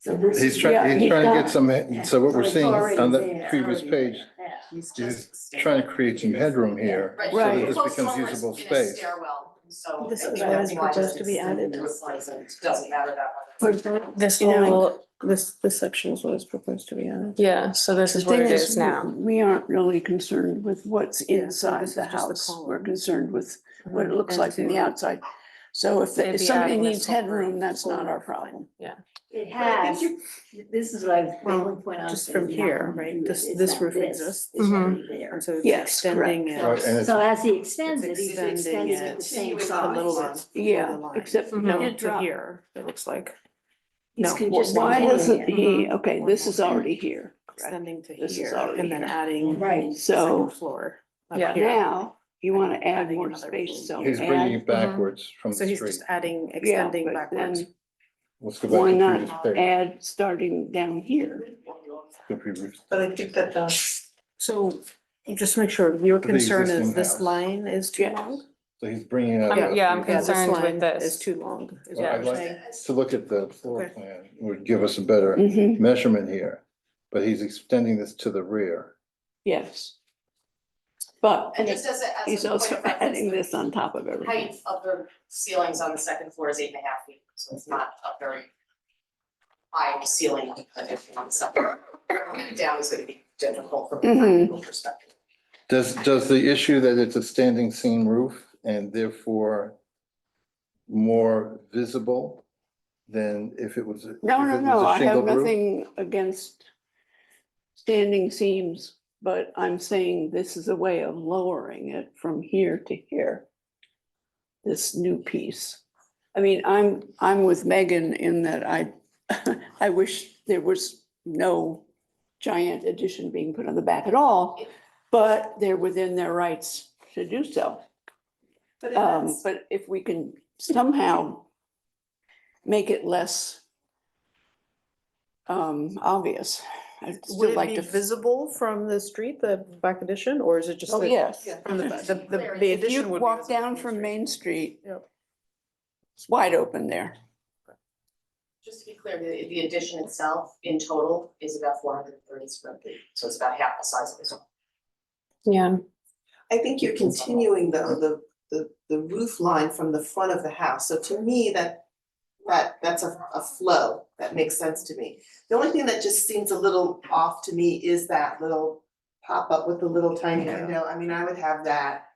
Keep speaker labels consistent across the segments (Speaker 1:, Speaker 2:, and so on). Speaker 1: So this.
Speaker 2: He's
Speaker 1: is-
Speaker 3: yeah,
Speaker 2: trying, he's
Speaker 3: he's
Speaker 2: trying to
Speaker 3: got-
Speaker 2: get some, he- so what
Speaker 1: So
Speaker 2: we're
Speaker 1: it's
Speaker 2: seeing
Speaker 1: already
Speaker 2: on the
Speaker 1: there,
Speaker 2: previous
Speaker 1: already
Speaker 2: page,
Speaker 1: there, yeah.
Speaker 4: He's
Speaker 2: is
Speaker 4: just.
Speaker 2: trying to create some headroom here.
Speaker 5: Right.
Speaker 2: So that
Speaker 3: Right.
Speaker 2: this
Speaker 5: Well,
Speaker 2: becomes
Speaker 5: someone's
Speaker 2: usable
Speaker 5: in a
Speaker 2: space.
Speaker 5: Stairwell, so.
Speaker 3: This
Speaker 5: I
Speaker 3: is
Speaker 5: think
Speaker 3: what
Speaker 5: that's
Speaker 3: is
Speaker 5: why
Speaker 3: proposed
Speaker 5: it's-
Speaker 3: to be added.
Speaker 5: it Doesn't matter that much.
Speaker 3: For that,
Speaker 4: This
Speaker 3: You know,
Speaker 4: whole, this, this section is what is proposed to be on. Yeah, so this
Speaker 3: the
Speaker 4: is what
Speaker 3: thing
Speaker 4: it is now.
Speaker 3: We aren't really concerned with what's
Speaker 4: Yeah, so
Speaker 3: inside
Speaker 4: this
Speaker 3: the
Speaker 4: is just the
Speaker 3: house. We're
Speaker 4: column.
Speaker 3: concerned with what it looks like on the
Speaker 4: And
Speaker 3: outside. So if, the-
Speaker 4: Maybe
Speaker 3: if somebody
Speaker 4: adding this
Speaker 3: needs
Speaker 4: whole-
Speaker 3: headroom, that's not our problem.
Speaker 1: It
Speaker 5: But I
Speaker 1: has,
Speaker 5: think
Speaker 1: this is what I
Speaker 4: Well,
Speaker 1: mainly point out.
Speaker 4: just
Speaker 1: that
Speaker 4: from
Speaker 1: we have
Speaker 4: here,
Speaker 1: to do
Speaker 4: right?
Speaker 1: it.
Speaker 4: This-
Speaker 1: It's
Speaker 4: this
Speaker 1: not
Speaker 4: roof exists. Mm-hmm.
Speaker 1: It's already
Speaker 4: And
Speaker 1: there.
Speaker 4: so it's
Speaker 3: Yes,
Speaker 4: extending
Speaker 3: correct.
Speaker 4: it.
Speaker 2: Right, and it's-
Speaker 1: So as he extends it, he's
Speaker 4: It's
Speaker 1: extending
Speaker 4: extending
Speaker 1: it the
Speaker 4: it
Speaker 1: same
Speaker 5: a
Speaker 1: size.
Speaker 5: little
Speaker 3: Yeah, except no,
Speaker 4: No,
Speaker 3: it
Speaker 4: to
Speaker 3: dropped.
Speaker 4: here, it looks like,
Speaker 1: He's
Speaker 4: No,
Speaker 1: con-
Speaker 4: why
Speaker 1: just
Speaker 3: Why
Speaker 1: continuing
Speaker 3: doesn't
Speaker 1: it.
Speaker 3: he, okay, this is already here. correct?
Speaker 4: extending to
Speaker 3: This is
Speaker 4: here
Speaker 3: already
Speaker 4: and then
Speaker 3: here.
Speaker 4: adding
Speaker 1: Right,
Speaker 3: So
Speaker 4: second floor. up
Speaker 5: Yeah.
Speaker 4: here.
Speaker 3: now you want to add
Speaker 4: Adding
Speaker 3: more
Speaker 4: another room.
Speaker 3: space, so
Speaker 2: He's bringing
Speaker 3: add,
Speaker 2: it backwards from
Speaker 4: So
Speaker 2: the
Speaker 4: he's
Speaker 2: street.
Speaker 4: just adding,
Speaker 3: yeah,
Speaker 4: extending
Speaker 3: but
Speaker 4: backwards.
Speaker 3: then
Speaker 2: Let's go
Speaker 3: why
Speaker 2: back to
Speaker 3: not
Speaker 2: the previous page.
Speaker 3: add starting down here.
Speaker 2: The previous-
Speaker 5: But I think that the.
Speaker 4: So just to make sure, your
Speaker 2: the
Speaker 4: concern is
Speaker 2: existing
Speaker 4: this
Speaker 2: house.
Speaker 4: line is too
Speaker 3: Yes.
Speaker 4: long?
Speaker 2: So he's bringing out.
Speaker 5: I'm-
Speaker 2: the-
Speaker 5: yeah, I'm
Speaker 4: Yeah, this
Speaker 5: concerned with
Speaker 4: line
Speaker 5: this.
Speaker 4: Is too long. is
Speaker 2: Well,
Speaker 4: what
Speaker 2: I'd
Speaker 4: you're
Speaker 2: like
Speaker 4: saying.
Speaker 2: To look at the floor
Speaker 4: Okay.
Speaker 2: plan would give us a better
Speaker 3: Mhm.
Speaker 2: measurement here, but he's extending this to the rear.
Speaker 3: Yes. But
Speaker 5: And just as a, as
Speaker 3: he's
Speaker 5: a point
Speaker 3: also
Speaker 5: of
Speaker 3: adding
Speaker 5: reference,
Speaker 3: this on top of
Speaker 5: the
Speaker 3: everything.
Speaker 5: height of the ceilings on the second floor is eight and a half feet, so it's not a very high ceiling addition on the second. floor. Down is gonna be difficult from a
Speaker 3: Mhm.
Speaker 5: practical perspective.
Speaker 2: Does, does the issue that it's a standing seam roof and therefore more visible than if it was? a-
Speaker 3: No,
Speaker 2: if
Speaker 3: no,
Speaker 2: it was
Speaker 3: no,
Speaker 2: a
Speaker 3: I have
Speaker 2: shingled roof?
Speaker 3: nothing against standing seams, but I'm saying this is a way of lowering it from here to here. This new piece. I mean, I'm, I'm with Megan in that I, I wish there was no giant addition being put on the back at all, but they're within their rights to do so.
Speaker 5: But
Speaker 3: Um, but if we can somehow make it less um, obvious, I'd
Speaker 4: Would
Speaker 3: still
Speaker 4: it
Speaker 3: like
Speaker 4: be
Speaker 3: to.
Speaker 4: visible from the street, the back addition, or is it just
Speaker 3: Oh,
Speaker 4: the-
Speaker 3: yes.
Speaker 4: from the, the-
Speaker 5: If
Speaker 4: the, the
Speaker 5: you
Speaker 3: If you
Speaker 4: addition would be
Speaker 3: walk
Speaker 4: visible
Speaker 3: down
Speaker 4: the
Speaker 3: from
Speaker 4: street?
Speaker 3: Main Street,
Speaker 4: Yep.
Speaker 3: it's wide open there.
Speaker 5: Just to be clear, the, the addition itself in total is about four hundred and thirty square feet, so it's about half the size of this one.
Speaker 4: Yeah,
Speaker 6: I think you're continuing though, the, the, the roof line from the front of the house, so to me, that, that, that's a, a flow, that makes sense to me. The only thing that just seems a little off to me is that little pop-up with the little tiny
Speaker 4: Yeah.
Speaker 6: window, I mean, I would have that,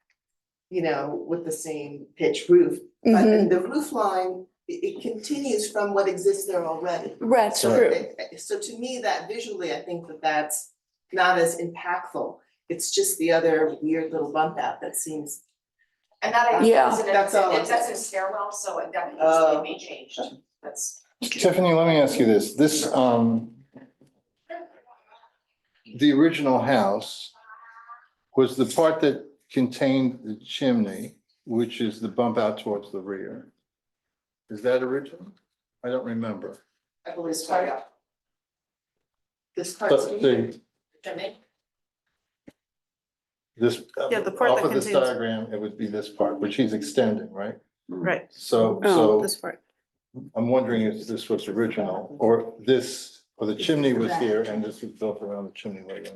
Speaker 6: you know, with the same pitch roof, but
Speaker 3: Mm-hmm.
Speaker 6: the roof line, it, it continues from what exists there already.
Speaker 3: That's
Speaker 6: So
Speaker 3: true.
Speaker 6: it- So to me, that visually, I think that that's not as impactful. It's just the other weird little bump out that seems,
Speaker 5: And that I
Speaker 3: Yeah.
Speaker 5: think is an,
Speaker 6: That's all it
Speaker 5: that's
Speaker 6: is.
Speaker 5: a stairwell, so it definitely
Speaker 6: Oh.
Speaker 5: may change, that's.
Speaker 2: Tiffany, let me ask you this, this, um, the original house was the part that contained the chimney, which is the bump out towards the rear. Is that original? I don't remember.
Speaker 6: I believe,
Speaker 5: This part, yeah.
Speaker 6: this part.
Speaker 2: But the,
Speaker 5: Jimmy?
Speaker 2: this, uh,
Speaker 4: Yeah, the part
Speaker 2: off
Speaker 4: that
Speaker 2: of this
Speaker 4: contains-
Speaker 2: diagram, it would be this part, which he's extending, right?
Speaker 4: right,
Speaker 2: So,
Speaker 3: Oh,
Speaker 2: so
Speaker 4: this part.
Speaker 2: I'm wondering if this was original, or this, or the chimney was here and this was built around the chimney later.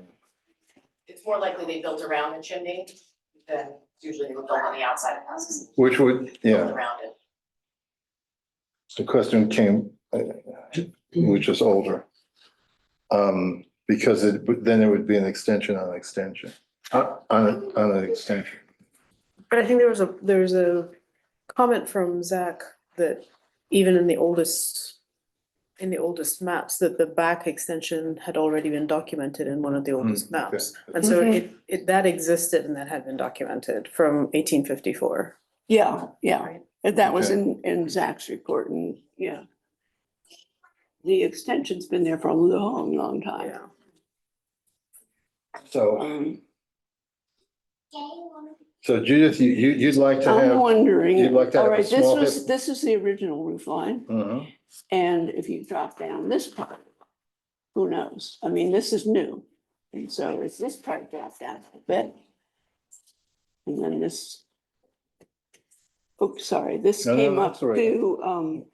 Speaker 5: It's more likely they built around the chimney than usually they would build on the outside of houses,
Speaker 2: Which would, yeah.
Speaker 5: built around it.
Speaker 2: the question came, uh, which is older. Um, because it, but then it would be an extension on an extension, uh, on, a- on an extension.
Speaker 4: But I think there was a, there was a comment from Zach that even in the oldest, in the oldest maps, that the back extension had already been documented in one of the oldest
Speaker 2: Mm, okay.
Speaker 4: maps. And so it, it, that existed and that had been documented from eighteen fifty-four.
Speaker 3: Yeah, yeah.
Speaker 4: Right.
Speaker 3: And That was
Speaker 2: Okay.
Speaker 3: in, in Zach's report and, yeah. The extension's been there for a long, long time.
Speaker 2: So,
Speaker 3: Um,
Speaker 2: so Judith, you, you, you'd like to
Speaker 3: I'm
Speaker 2: have,
Speaker 3: wondering,
Speaker 2: you'd like to have
Speaker 3: all
Speaker 2: a
Speaker 3: right, this
Speaker 2: small
Speaker 3: was,
Speaker 2: bit-
Speaker 3: this is the original roof line.
Speaker 2: Mhm.
Speaker 3: And if you drop down this part, who knows? I mean, this is new. And so if this part dropped down a bit. And then this. Oops, sorry, this
Speaker 2: No, no,
Speaker 3: came
Speaker 2: no,
Speaker 3: up
Speaker 2: that's all right.
Speaker 3: to, um,